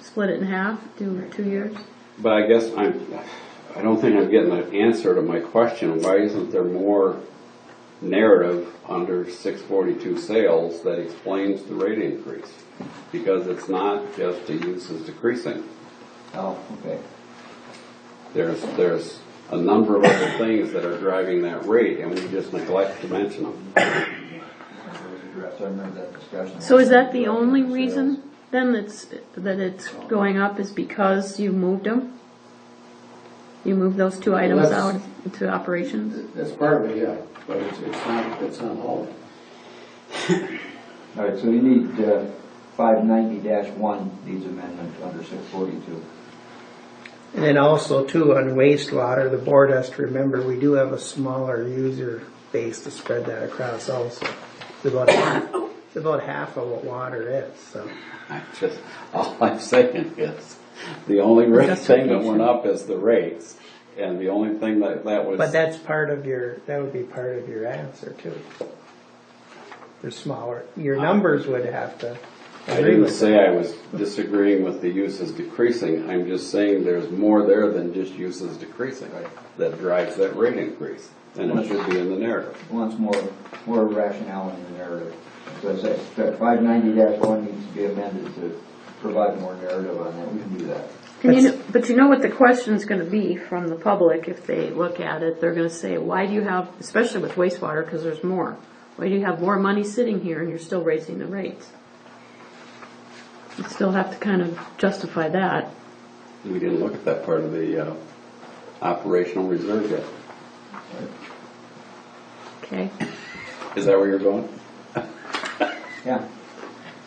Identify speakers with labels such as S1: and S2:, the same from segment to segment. S1: split it in half, do two years.
S2: But I guess I'm, I don't think I'm getting an answer to my question, why isn't there more narrative under six forty-two sales that explains the rate increase? Because it's not just the use is decreasing.
S3: Oh, okay.
S2: There's, there's a number of other things that are driving that rate, and we just neglect to mention them.
S3: So I remember that discussion.
S1: So is that the only reason then that's, that it's going up is because you moved them? You moved those two items out
S4: that's-
S1: into operations?
S4: That's part of it, yeah, but it's, it's not, it's not all. of it.
S3: All right, so we need uh, 590-1 needs amendment under 642.
S5: And then also too, on wastewater, the board has to remember, we do have a smaller user base to spread that across also. It's about, half- it's about half of what water is, so.
S2: I just, all I'm saying is, the only rate thing that went up is the rates, and the only thing that, that was.
S5: But that's part of your, that would be part of your answer too. Your smaller, your numbers would have to
S2: I
S5: agree
S2: didn't
S5: with that.
S2: say I was disagreeing with the uses decreasing, I'm just saying there's more there than just uses decreasing that drives that rate increase, and it should be in the narrative.
S3: Wants more, more rationale in the narrative. So I say, that 590-1 needs to be amended to provide more narrative on that, we can do that.
S1: And you know, but you know what the question's gonna be from the public if they look at it, they're gonna say, why do you have, especially with wastewater, cause there's more. Why do you have more money sitting here and you're still raising the rates? You still have to kind of justify that.
S2: We didn't look at that part of the, uh, operational reserve yet.
S1: Okay.
S2: Is that where you're going?
S3: Yeah.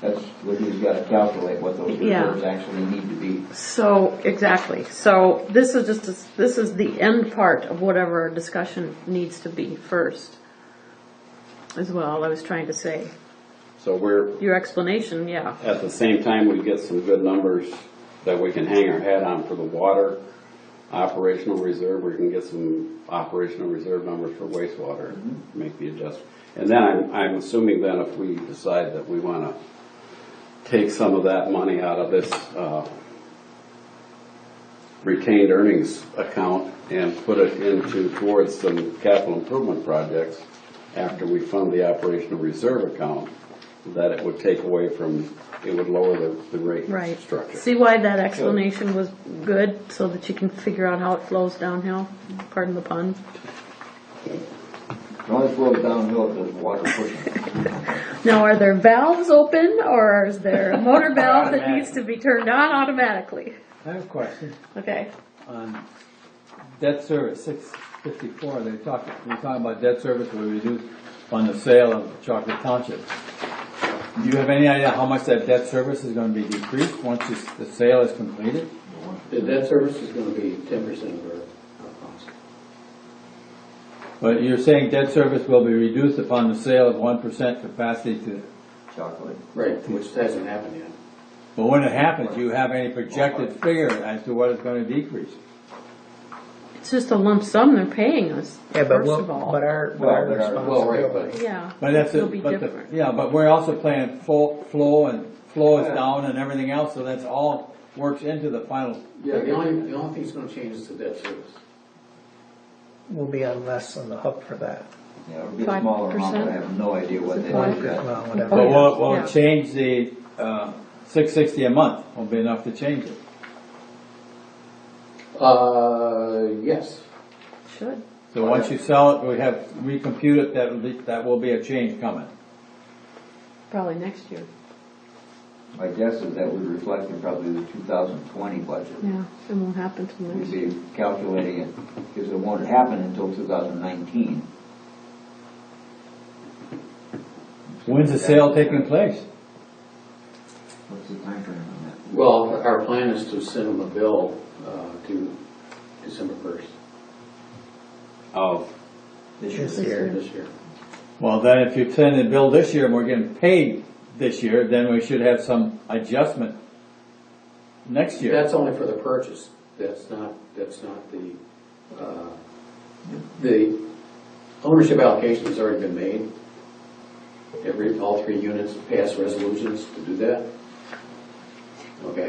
S3: That's what he's got to calculate, what those
S1: Yeah.
S3: reserves actually need to be.
S1: So, exactly. So this is just, a- this is the end part of whatever our discussion needs to be first. Is what all I was trying to say.
S2: So we're,
S1: Your explanation, yeah.
S2: at the same time, we get some good numbers that we can hang our hat on for the water operational reserve, we can get some operational reserve numbers for wastewater, make the adjustment. And then I'm, I'm assuming then if we decide that we wanna take some of that money out of this, uh, retained earnings account and put it into, towards some capital improvement projects after we fund the operational reserve account, that it would take away from, it would lower the, the rate
S1: Right.
S2: structure.
S1: See why that explanation was good, so that you can figure out how it flows downhill? Pardon the pun.
S3: It only flows downhill if there's water pushing.
S1: Now, are there valves open, or is there a motor valve that needs to be turned on automatically?
S6: I have a question
S1: Okay.
S6: on debt service, six fifty-four, they talk, we're talking about debt service we reduce on the sale of Chocolate Township. Do you have any idea how much that debt service is gonna be decreased once this- the sale is completed?
S4: The debt service is gonna be ten percent of our, our cost.
S6: But you're saying debt service will be reduced upon the sale of one percent capacity to,
S3: Chocolate.
S4: Right. Which hasn't happened yet.
S6: but when it happens, do you have any projected figure as to what it's gonna decrease?
S1: It's just a lump sum they're paying us,
S5: Yeah, but
S1: first
S5: we'll,
S1: of all.
S5: but our, but
S3: Well,
S5: our
S3: but our-
S4: Well, right,
S5: responsibility.
S4: but
S1: Yeah.
S6: But that's,
S1: It'll
S6: a-
S1: be
S6: but the,
S1: different.
S6: yeah, but we're also playing flow, flow and flow is
S4: Yeah.
S6: down and everything else, so that's all works into the final.
S1: Oh,
S4: yeah, the only, the only thing that's gonna change is the debt service.
S5: We'll be on less on the hook for that.
S3: Yeah, it'll be a smaller amount, but I have no idea what they
S1: Five
S3: did.
S1: percent.
S3: yet.
S5: Well, whatever.
S6: But will, will
S1: Yeah.
S6: it change the, uh, six sixty a month, won't be enough to change it.
S4: Uh, yes.
S1: Should.
S6: So once you sell it, we have, recompute it, that will be, that will be a change coming.
S1: Probably next year.
S3: My guess is that would reflect in probably the 2020 budget.
S1: Yeah, it won't happen till
S3: We'd
S1: next year.
S3: be calculating it, because it won't happen until 2019.
S6: When's the sale taking place?
S3: What's the timeframe on that?
S4: Well, our plan is to send them a bill, uh, to December first
S2: Of
S5: This year,
S4: this year.
S6: Well, then if you send the bill this year and we're getting paid this year, then we should have some adjustment next year.
S4: That's only for the purchase. That's not, that's not the, uh, the ownership allocation has already been made. Every, all three units passed resolutions to do that. okay?